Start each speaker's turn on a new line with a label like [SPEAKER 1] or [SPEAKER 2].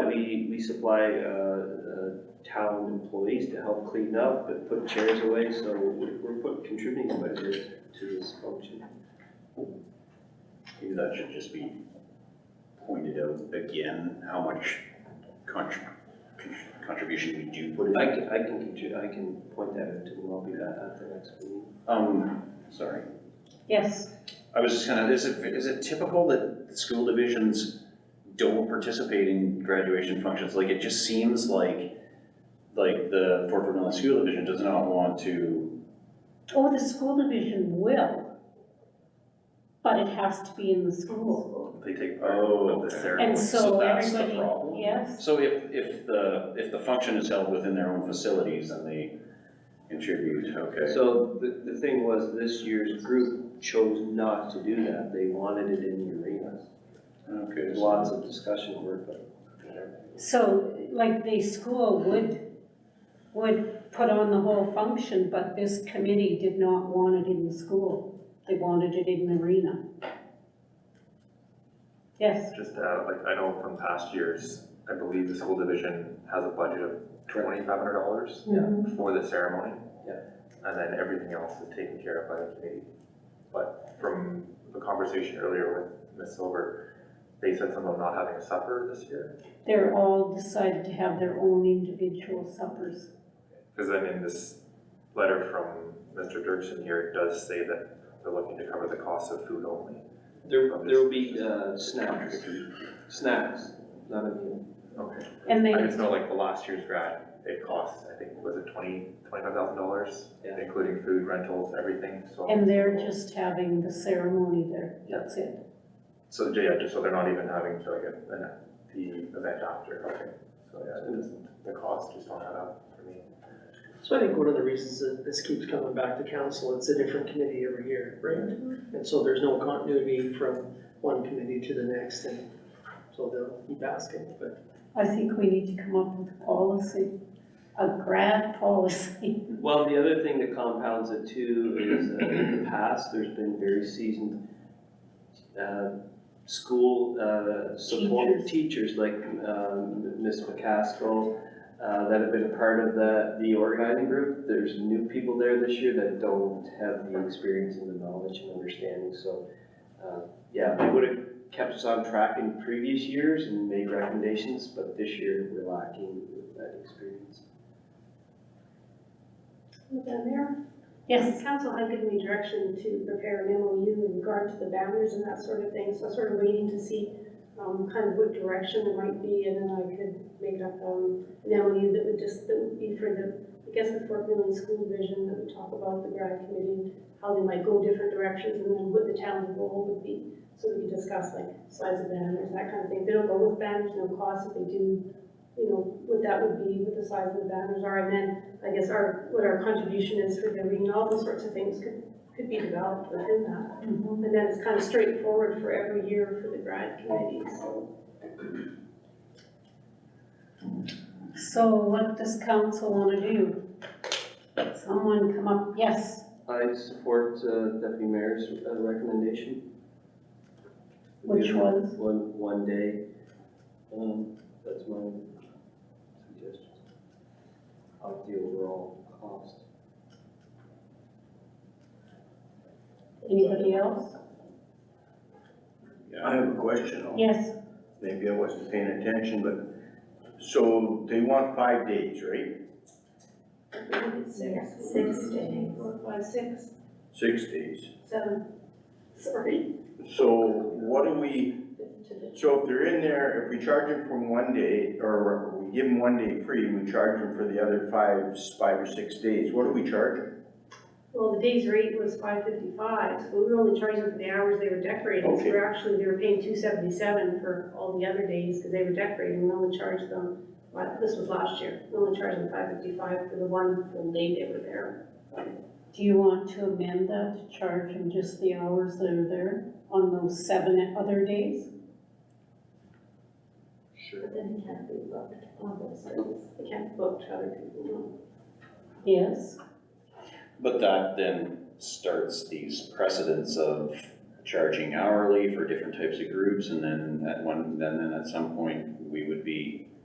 [SPEAKER 1] we, we supply, uh, uh, town employees to help clean up and put chairs away, so we're, we're put- contributing quite a bit to this function.
[SPEAKER 2] Maybe that should just be pointed out again, how much contr- con- contribution we do put
[SPEAKER 1] I
[SPEAKER 2] in.
[SPEAKER 1] can, I can, contri- I can point that out to them, I'll be back at the next meeting.
[SPEAKER 2] Um, sorry,
[SPEAKER 3] Yes,
[SPEAKER 2] I was just gonna, is it, is it typical that school divisions don't participate in graduation functions? Like, it just seems like, like the Fort Vermillion School Division does not want to,
[SPEAKER 3] or Oh, the school division will, but it has to be in the school.
[SPEAKER 2] they take part
[SPEAKER 1] Oh,
[SPEAKER 2] of the ceremony.
[SPEAKER 3] And so
[SPEAKER 2] that's the
[SPEAKER 3] everybody,
[SPEAKER 2] problem.
[SPEAKER 3] yes,
[SPEAKER 2] So if, if the, if the function is held within their own facilities, then they contribute, okay.
[SPEAKER 1] So the, the thing was, this year's group chose not to do that, they wanted it in the arenas.
[SPEAKER 2] Okay,
[SPEAKER 1] There's
[SPEAKER 2] so-
[SPEAKER 1] lots of discussion over, it, but whatever.
[SPEAKER 3] so like the school would, would put on the whole function, but this committee did not want it in the school. They wanted it in the arena. Yes,
[SPEAKER 4] Just to add, like, I know from past years, I believe the school division has a budget of twenty-five hundred dollars
[SPEAKER 1] Yeah.
[SPEAKER 4] for the ceremony.
[SPEAKER 1] Yeah.
[SPEAKER 4] And then everything else is taken care of by the committee. But from the conversation earlier with Ms. Silver, they said something about not having a supper this year.
[SPEAKER 3] they're all decided to have their own individual suppers.
[SPEAKER 4] Because then in this letter from Mr. Dirksen here, it does say that they're looking to cover the cost of food only.
[SPEAKER 1] There, there will be, uh, snacks, snacks, not a meal.
[SPEAKER 4] Okay.
[SPEAKER 3] And they,
[SPEAKER 4] I just know like the last year's grad, it costs, I think, was it twenty, twenty-five thousand dollars?
[SPEAKER 1] Yeah.
[SPEAKER 4] Including food, rentals, everything, so.
[SPEAKER 3] and they're just having the ceremony there, that's it.
[SPEAKER 4] So, yeah, just so they're not even having to like, a- an- the event after, okay, so yeah, it doesn't, the costs just don't add up for me.
[SPEAKER 5] So I think one of the reasons that this keeps coming back to council, it's a different committee every year, right? And so there's no continuity from one committee to the next, and so they'll keep asking, but
[SPEAKER 3] I think we need to come up with a policy, a grad policy.
[SPEAKER 1] Well, the other thing that compounds it too is uh, in the past, there's been very seasoned uh, school uh, support teachers like um, Ms. McCaskill uh, that have been a part of the, the organizing group. There's new people there this year that don't have the experience and the knowledge and understanding, so uh, yeah, they would have kept us on track in previous years and made recommendations, but this year we're lacking with that experience.
[SPEAKER 6] Madam Mayor?
[SPEAKER 3] Yes,
[SPEAKER 6] Council had given me direction to prepare an MOU in regard to the boundaries and that sort of thing, so I was sort of waiting to see um, kind of what direction it might be, and then I could make up um, an MOU that would just, that would be for the, I guess the Fort Millen School Division, that would talk about the grad committee, how they might go different directions, and then what the town's role would be, so we could discuss like size of banners, that kind of thing. They don't go with banners, no cost, if they do, you know, what that would be, what the size of the banners are, and then I guess our, what our contribution is for the arena, all those sorts of things could, could be developed within that.
[SPEAKER 3] Mhm.
[SPEAKER 6] And then it's kind of straightforward for every year for the grad committee, so.
[SPEAKER 3] so what does council want to do? Someone come up, yes,
[SPEAKER 1] I support uh, Deputy Mayor's uh, recommendation.
[SPEAKER 3] Which was?
[SPEAKER 1] One, one day. Um, That's my suggestion. Of the overall cost.
[SPEAKER 3] anybody else?
[SPEAKER 7] I have a question, though.
[SPEAKER 3] Yes,
[SPEAKER 7] maybe I wasn't paying attention, but, so they want five days, right?
[SPEAKER 6] Six.
[SPEAKER 8] Six days.
[SPEAKER 6] Four, five, six,
[SPEAKER 7] Six days.
[SPEAKER 6] seven, sorry.
[SPEAKER 7] So what do we, so if they're in there, if we charge them for one day, or we give them one day free, and we charge them for the other five, five or six days, what do we charge them?
[SPEAKER 6] Well, the day's rate was five fifty-five, so we were only charging for the hours they were decorating. So
[SPEAKER 7] Okay.
[SPEAKER 6] we're actually, they were paying two seventy-seven for all the other days, because they were decorating, we only charged them, well, this was last year, we only charged them five fifty-five for the one full day they were there.
[SPEAKER 3] do you want to amend that to charge them just the hours that are there on those seven other days?
[SPEAKER 8] But then it can't be booked
[SPEAKER 6] Oh,
[SPEAKER 8] on those days.
[SPEAKER 6] They can't book to other people.
[SPEAKER 3] Yes,
[SPEAKER 2] But that then starts these precedents of charging hourly for different types of groups, and then at one, then, then at some point, we would be